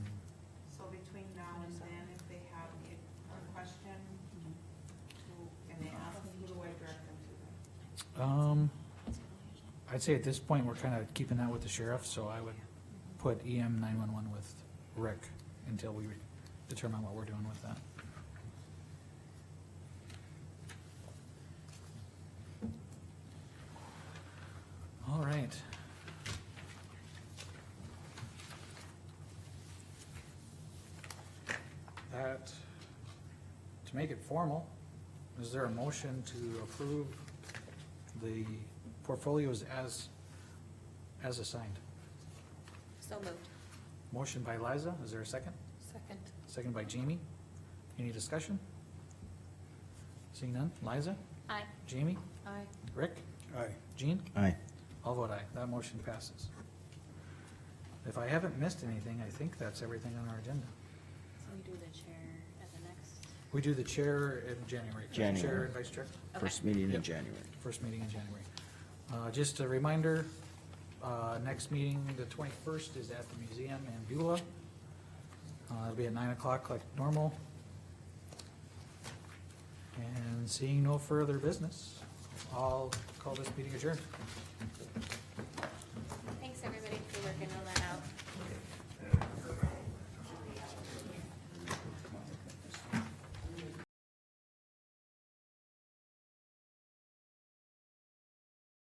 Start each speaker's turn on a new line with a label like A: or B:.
A: Um, I'd say at this point, we're kind of keeping that with the sheriff, so I would put E EM nine-one-one with Rick until we determine what we're doing with that. All right. That, to make it formal, is there a motion to approve the portfolios as, as assigned?
B: So moved.
A: Motion by Liza, is there a second?
B: Second.
A: Second by Jamie. Any discussion? Seeing none, Liza,
B: Aye.
A: Jamie,
B: Aye.
A: Rick,
C: Aye.
A: Jean?
D: Aye.
A: I'll vote aye, that motion passes. If I haven't missed anything, I think that's everything on our agenda.
B: So we do the chair at the next.
A: We do the chair in January. correct? Chair
D: January.
A: and vice chair,
D: First meeting in January.
A: first meeting in January. Uh, just a reminder, uh, next meeting, the twenty-first, is at the museum in Beulah. Uh, it'll be at nine o'clock like normal. And seeing no further business, I'll call this meeting adjourned.